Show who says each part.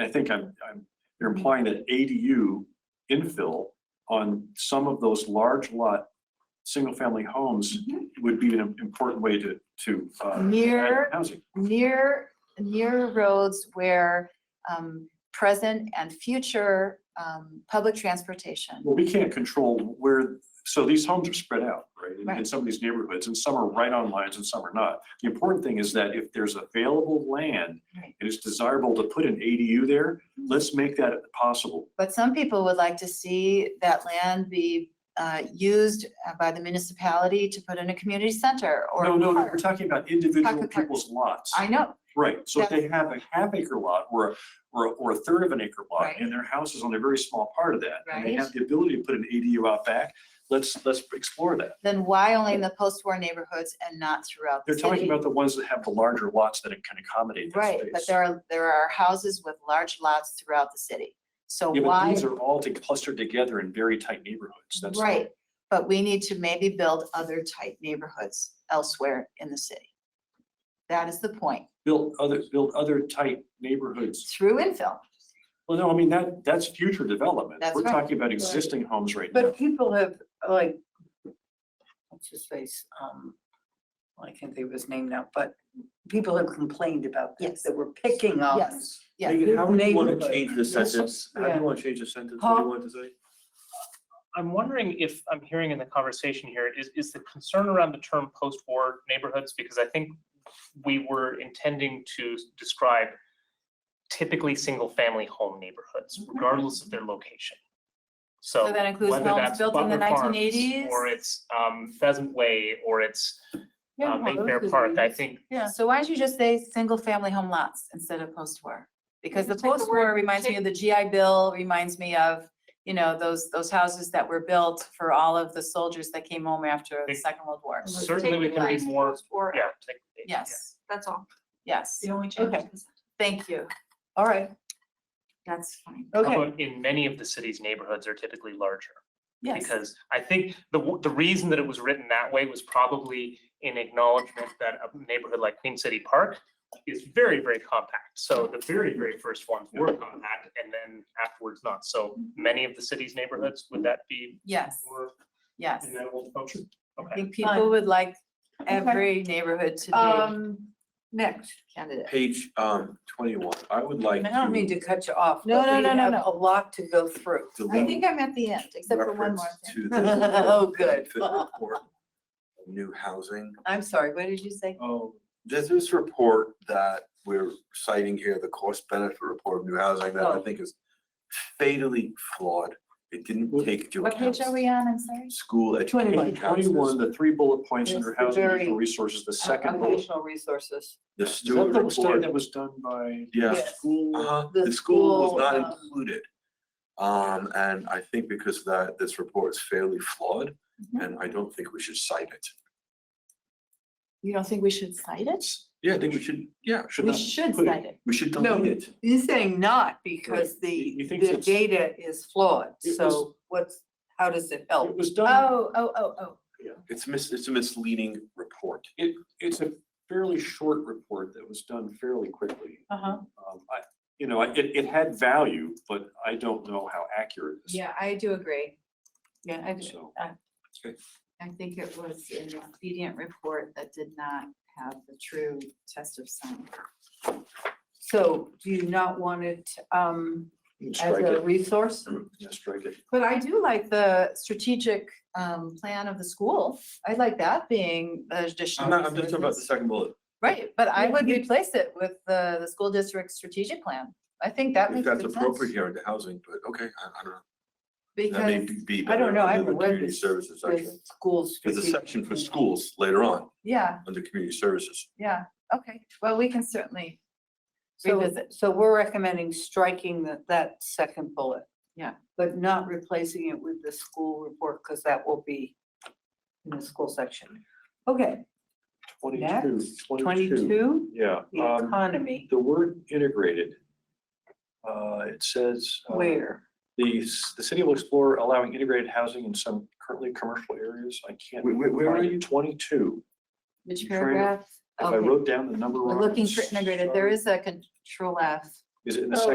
Speaker 1: I think I'm, I'm, you're implying that ADU infill on some of those large lot, single-family homes would be an important way to, to. uh, add
Speaker 2: Near-
Speaker 1: Housing.
Speaker 2: near, near roads where um, present and future um, public transportation.
Speaker 1: Well, we can't control where, so these homes are spread out, right? in- In
Speaker 2: Right.
Speaker 1: some of these neighborhoods, and some are right on lines and some are not. The important thing is that if there's available land,
Speaker 2: Right.
Speaker 1: it
Speaker 2: Mm-hmm.
Speaker 1: is desirable to put an ADU there, let's make that possible.
Speaker 2: But some people would like to see that land be uh, used uh, by the municipality to put in a community center or.
Speaker 1: No, no, no, we're
Speaker 2: park.
Speaker 1: talking about individual
Speaker 2: Pocket park.
Speaker 1: people's lots.
Speaker 2: I know,
Speaker 1: Right, so if they have a half acre lot or, a- or, a- or a third of an acre lot, and
Speaker 2: Right.
Speaker 1: their house is on a very small part of that, and they
Speaker 2: Right.
Speaker 1: have the ability to put an ADU out back, let's, let's explore that.
Speaker 2: then why only in the post-war neighborhoods and not throughout the
Speaker 1: They're
Speaker 2: city?
Speaker 1: talking about the ones that have the larger lots that can accommodate that
Speaker 2: Right, but
Speaker 1: space.
Speaker 2: there are, there are houses with large lots throughout the city. So
Speaker 1: Yeah, but
Speaker 2: why,
Speaker 1: these are all to- clustered together in very tight neighborhoods, that's.
Speaker 2: right, but we need to maybe build other type neighborhoods elsewhere in the city. That is the point,
Speaker 1: Build other, build other tight neighborhoods.
Speaker 2: through infill.
Speaker 1: Well, no, I mean, that, that's future development.
Speaker 2: That's
Speaker 1: We're
Speaker 2: right.
Speaker 1: talking about existing homes right now.
Speaker 3: But people have, like, what's his face, um, well, I can't think of his name now, but people have complained about this,
Speaker 2: Yes.
Speaker 3: that we're picking up.
Speaker 2: Yes, yeah.
Speaker 4: Megan, how would you want to
Speaker 3: Neighborhood.
Speaker 4: change the sentence? How do
Speaker 3: Yeah.
Speaker 4: you want to change the sentence? What do
Speaker 3: Huh?
Speaker 4: you want to say?
Speaker 5: I'm wondering if I'm hearing in the conversation here, is, is the concern around the term post-war neighborhoods? Because I think we were intending to describe typically single-family home neighborhoods regardless of their location. So
Speaker 6: So that includes
Speaker 5: whether
Speaker 6: homes
Speaker 5: that's
Speaker 6: built in the
Speaker 5: Butler Farms
Speaker 6: 1980s?
Speaker 5: Or it's um, Pheasant Way or it's
Speaker 3: Yeah, well,
Speaker 5: uh,
Speaker 3: those
Speaker 5: Mayfair
Speaker 3: could
Speaker 5: Park.
Speaker 3: be
Speaker 5: I
Speaker 3: used.
Speaker 5: think
Speaker 3: Yeah.
Speaker 6: So why don't you just say single-family home lots instead of post-war? Because the Take the word- post-war reminds me of the GI Bill, reminds me of, you know, those, those houses that were built for all of the soldiers that came home after the
Speaker 5: Big-
Speaker 6: Second World War.
Speaker 3: Let's
Speaker 5: certainly we
Speaker 6: take
Speaker 5: can be
Speaker 6: the
Speaker 5: more, yeah. take-
Speaker 6: Yes,
Speaker 7: That's all.
Speaker 6: yes,
Speaker 3: The only
Speaker 6: change Okay. thank you,
Speaker 3: All right,
Speaker 6: that's fine.
Speaker 5: How
Speaker 3: okay.
Speaker 5: about in many of the city's neighborhoods are typically larger?
Speaker 6: Yes.
Speaker 5: Because I think the, w- the reason that it was written that way was probably in acknowledgement that a neighborhood like Queen City Park is very, very compact. So the very, very first ones were compact and then afterwards not. So many of the city's neighborhoods, would that be
Speaker 6: Yes,
Speaker 5: more
Speaker 6: yes.
Speaker 5: amenable to folks?
Speaker 6: I
Speaker 5: Okay.
Speaker 6: think people would like every neighborhood to be
Speaker 3: Um, next,
Speaker 2: candidate.
Speaker 4: Page um twenty-one, I would like
Speaker 3: and I don't mean
Speaker 4: to
Speaker 3: to cut you off.
Speaker 2: No,
Speaker 3: but
Speaker 2: no,
Speaker 3: we
Speaker 2: no, no,
Speaker 3: have
Speaker 2: no.
Speaker 3: A lot to go through.
Speaker 2: I
Speaker 4: delete
Speaker 2: think I'm at the end, except for one
Speaker 4: reference
Speaker 2: more thing.
Speaker 4: to the.
Speaker 3: Oh, good.
Speaker 4: benefit report of New housing.
Speaker 3: I'm sorry, what did you say?
Speaker 1: Oh,
Speaker 4: There's this report that we're citing here, the cost benefit report of new housing that I
Speaker 3: Oh.
Speaker 4: think is fatally flawed. It didn't take into
Speaker 2: What
Speaker 4: account
Speaker 2: page are we on? I'm sorry.
Speaker 4: school education.
Speaker 1: Page twenty-one,
Speaker 4: counselors,
Speaker 1: the three bullet points under
Speaker 3: It's the
Speaker 1: housing and
Speaker 3: very-
Speaker 1: natural resources, the second bullet.
Speaker 3: Occupational resources.
Speaker 4: The
Speaker 1: Is that
Speaker 4: Stewart
Speaker 1: the study
Speaker 4: report.
Speaker 1: that was done by?
Speaker 4: Yeah.
Speaker 3: Yes.
Speaker 1: School,
Speaker 4: Uh-huh,
Speaker 3: The
Speaker 4: the school was
Speaker 3: school,
Speaker 4: not
Speaker 2: uh,
Speaker 3: um,
Speaker 4: included. Um, and I think because of that, this report is fairly flawed,
Speaker 2: Mhm.
Speaker 4: and I don't think we should cite it.
Speaker 2: You don't think we should cite it?
Speaker 4: Yeah, I think we should, yeah, should
Speaker 2: We
Speaker 4: not,
Speaker 2: should
Speaker 4: put it-
Speaker 2: cite it.
Speaker 4: we should
Speaker 3: No.
Speaker 4: delete it.
Speaker 3: He's saying not because
Speaker 1: He-
Speaker 3: the,
Speaker 1: he thinks
Speaker 3: the
Speaker 1: it's-
Speaker 3: data is flawed,
Speaker 1: It
Speaker 3: so what's, how does it help?
Speaker 1: it was done,
Speaker 2: Oh, oh, oh, oh.
Speaker 4: It's mis, it's a misleading report.
Speaker 3: Oh.
Speaker 1: it's a fairly short report that was done fairly quickly.
Speaker 3: Uh-huh.
Speaker 1: Um, I, you know, I- it, it had value, but I don't know how accurate this
Speaker 6: Yeah, I do agree.
Speaker 3: Yeah,
Speaker 6: I do.
Speaker 1: is, so.
Speaker 2: I think it was an expedient report that did not have the true test of science.
Speaker 3: So do you not want it um as
Speaker 1: Strike
Speaker 3: a
Speaker 1: it,
Speaker 3: resource?
Speaker 1: yeah, strike it.
Speaker 2: But I do like the strategic um plan of the school. I like that being an additional.
Speaker 4: I'm not, I'm just talking about the
Speaker 2: resources.
Speaker 4: second bullet.
Speaker 2: Right, but I would replace it with the the school district strategic plan. I think that
Speaker 4: If
Speaker 2: makes
Speaker 4: that's
Speaker 2: good
Speaker 4: appropriate
Speaker 2: sense.
Speaker 4: here under housing, but okay, I, I don't know. That may
Speaker 3: Because,
Speaker 4: be- be
Speaker 3: I don't
Speaker 4: better
Speaker 3: know, I
Speaker 4: under the
Speaker 3: haven't read
Speaker 4: community
Speaker 3: this,
Speaker 4: Services section.
Speaker 3: this school's.
Speaker 4: There's a section for
Speaker 3: strategic-
Speaker 4: schools later on,
Speaker 2: Yeah,
Speaker 4: under community services.
Speaker 2: yeah, okay. Well, we can certainly
Speaker 3: So,
Speaker 2: revisit.
Speaker 3: so we're recommending striking that, that second bullet.
Speaker 2: Yeah.
Speaker 3: But not replacing it with the school report, because that will be in the school section. Okay,
Speaker 1: 22,
Speaker 3: Next,
Speaker 1: 22.
Speaker 3: twenty-two,
Speaker 1: Yeah,
Speaker 3: the
Speaker 1: um,
Speaker 3: economy,
Speaker 1: the word integrated. Uh, it says. uh,
Speaker 3: where?
Speaker 1: The, s- the city will explore allowing integrated housing in some currently commercial areas. I can't.
Speaker 4: Where- where- where are
Speaker 1: find it.
Speaker 4: you?
Speaker 1: Twenty-two.
Speaker 2: Which
Speaker 1: Trying to-
Speaker 2: paragraph?
Speaker 1: If I
Speaker 2: Okay,
Speaker 1: wrote down the number.
Speaker 2: we're
Speaker 1: wrong,
Speaker 2: looking for integrated. There
Speaker 1: sorry.
Speaker 2: is a control F.
Speaker 1: Is it in the
Speaker 3: Oh,
Speaker 1: second?